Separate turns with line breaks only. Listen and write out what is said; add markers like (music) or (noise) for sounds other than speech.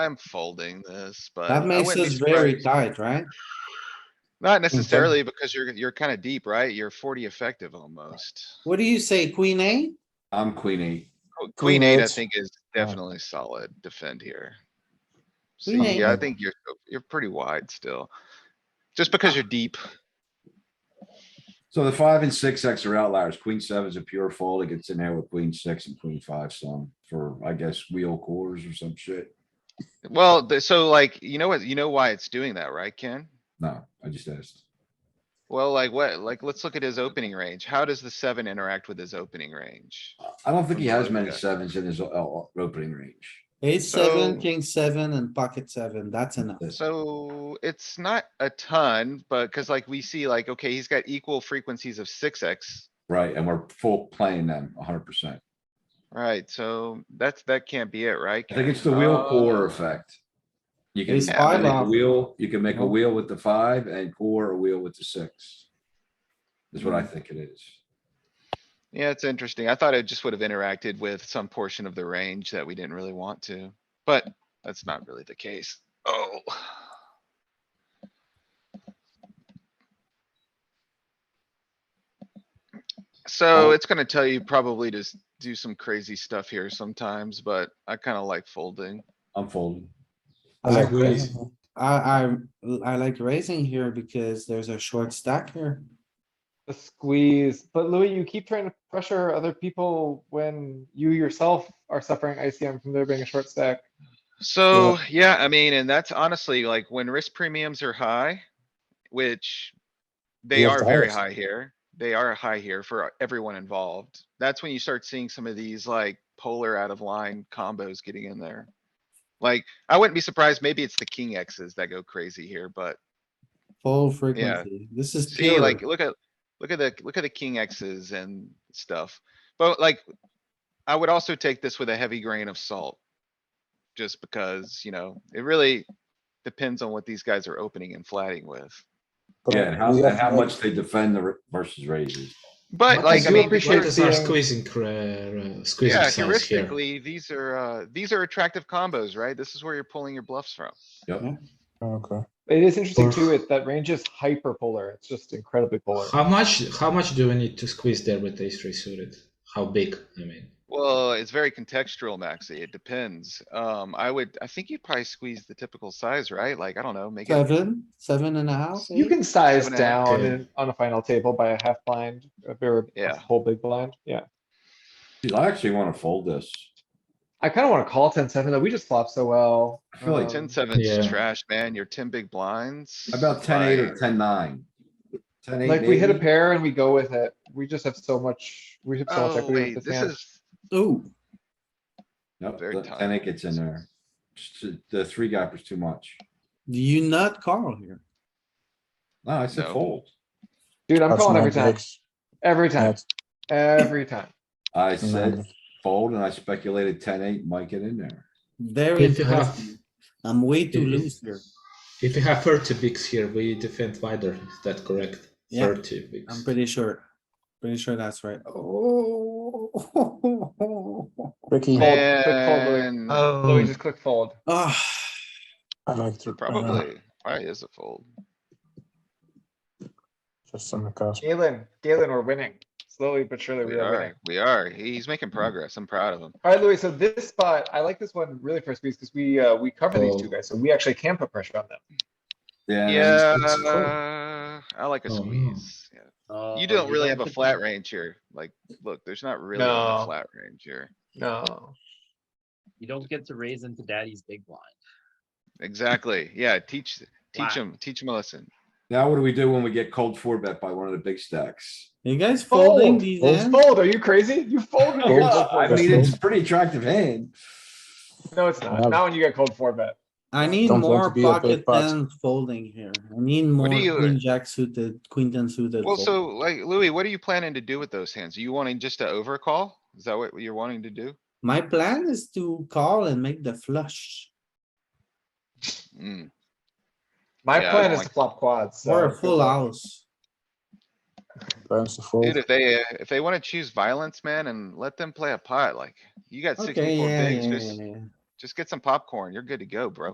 I'm folding this, but. I
That makes
wouldn't be
us very
surprised.
tight, right? (laughs)
Not necessarily because you're, you're kinda deep, right? You're forty effective almost.
What do you say, queen eight?
I'm queen eight.
Oh,
Qu- Queen eight, I
eight.
think is definitely solid defend here. So,
Queen
yeah, I
eight.
think you're, you're pretty wide still. Just because you're deep,
So the five and six X are outliers. Queen seven's a pure fold. It gets in there with queen six and queen five some for, I guess, wheel quarters or some shit.
well, th- so like, you know what, you know why it's doing that, right, Ken?
No, I just asked.
Well, like what, like, let's look at his opening range. How does the seven interact with his opening range?
I don't think he has many
Okay.
sevens in his o- o- opening range.
Eight, seven,
So-
king seven and pocket seven. That's enough.
That's-
So it's not a ton, but cuz like we see like, okay, he's got equal frequencies of six X.
Right, and we're full playing them hundred percent.
Right, so that's, that can't be it, right?
I think it's the
Ken?
wheel core
Oh,
effect. You can
Ace
make
five
a
off.
wheel, you can make a
um, No.
wheel with the five and core a wheel with the six. Is what I think it is.
Yeah, it's interesting. I thought it just would have interacted with some portion of the range that we didn't really want to, but that's not really the case. Oh. So it's gonna tell you probably to s- do some crazy stuff here sometimes, but I kinda like folding.
I'm folding.
I like
Okay.
raising.
I, I, I like raising here because there's a short stack here.
A squeeze, but Louis, you keep trying to pressure other people when you yourself are suffering ICM from there being a short stack.
So, yeah, I mean, and that's honestly like when risk premiums are high, which they
have
are
to
very
harvest.
high here. They are high here for everyone involved. That's when you start seeing some of these like polar out of line combos getting in there. Like, I wouldn't be surprised, maybe it's the king X's that go crazy here, but
Full frequency. This is
see,
pure.
like, look at, look at the, look at the king X's and stuff. But like, I would also take this with a heavy grain of salt. Just because, you know, it really depends on what these guys are opening and flatting with.
Yeah, and how, and how much they defend the r- versus raises.
But
But
like,
do
I mean,
appreciate
we're-
the
Players are
seeing-
squeezing, cra- uh, squeezing
yeah,
size here.
heuristically, these are, uh, these are attractive combos, right? This is where you're pulling your bluffs from.
Okay. It is interesting too, it, that range is hyper polar. It's just incredibly polar.
How much, how much do we need to squeeze there with ace three suited? How big, I mean?
Well, it's very contextual, Maxi. It depends. Um, I would, I think you'd probably squeeze the typical size, right? Like, I don't know, make it,
Seven, seven and a half.
You can size
Seven and a half.
down
Yeah.
in- on a final table by a half blind, a very, a
Yeah.
whole big blind, yeah.
Dude, I actually wanna fold this.
I kinda wanna call ten seven, though, we just flop so well.
I feel like
Um,
ten seven's
Yeah.
trash, man. Your ten big blinds.
About ten eight or
like,
ten nine. Ten eight.
Like, we hit a
maybe?
pair and we go with it, we just have so much, we have so much
Oh,
equity
wait,
with this
this
hand.
is,
Ooh,
Nope,
Very
the-
tight.
ten eight gets in there. Just The three gap is too much.
do you not call here?
No, I said
No.
fold.
Dude, I'm
That's
calling
not
every time,
good.
every time,
That's-
every time.
I
Mm.
said fold and I speculated ten eight might get in there.
Very
If you have,
interesting. I'm way too
If-
loose here.
if you have thirty bigs here, we defend wider, is that correct?
Yeah.
Thirty bigs.
I'm pretty sure. Pretty sure that's right. Oh.
Ricky,
Fold, click fold, oh, Louis.
man,
Louis, just click fold.
Ah,
I like to. uh,
probably, probably is a fold.
Just on the cusp.
Galen, Galen, we're winning. Slowly but surely we
We
are winning.
are, we are. He's making progress. I'm proud of him.
Alright, Louis, so this spot, I like this one really for squeeze, because we, uh, we cover these two
Oh.
guys, so we actually can put pressure on them.
Yeah,
it's- it's fold.
I like a
Oh, no.
squeeze. yeah.
Oh,
You don't really have a flat range here. Like, look, there's not really a
No.
flat range here.
No.
You don't get to raise into daddy's big blind.
Exactly. Yeah, teach, teach
Wow.
him, teach him a lesson.
Now what do we do when we get cold four bet by one of the big stacks?
you guys folding these
Fold,
hands?
Fold, are you crazy? You folded.
Fold.
your-
I mean, it's a pretty attractive hand.
No, it's not. Not when you get cold four bet.
I need
Don't want
more
to be a big
pocket
pot.
ten folding here. I need more
do you-
queen jack suited, queen ten suited.
Well,
fold.
so like Louis, what are you planning to do with those hands? Are you wanting just to overcall? Is that what you're wanting to do?
My plan is to call and make the flush
Mm,
My
Yeah, I
plan
don't
is to
like-
flop quads. so
or a
good
full
luck.
house.
Plans to fold.
Dude, if they, uh, if they wanna choose violence, man, and let them play a pot, like, you got
Okay,
sixty-four
yeah,
bigs,
yeah,
just,
yeah, yeah.
Just get some popcorn. You're good to go, bro.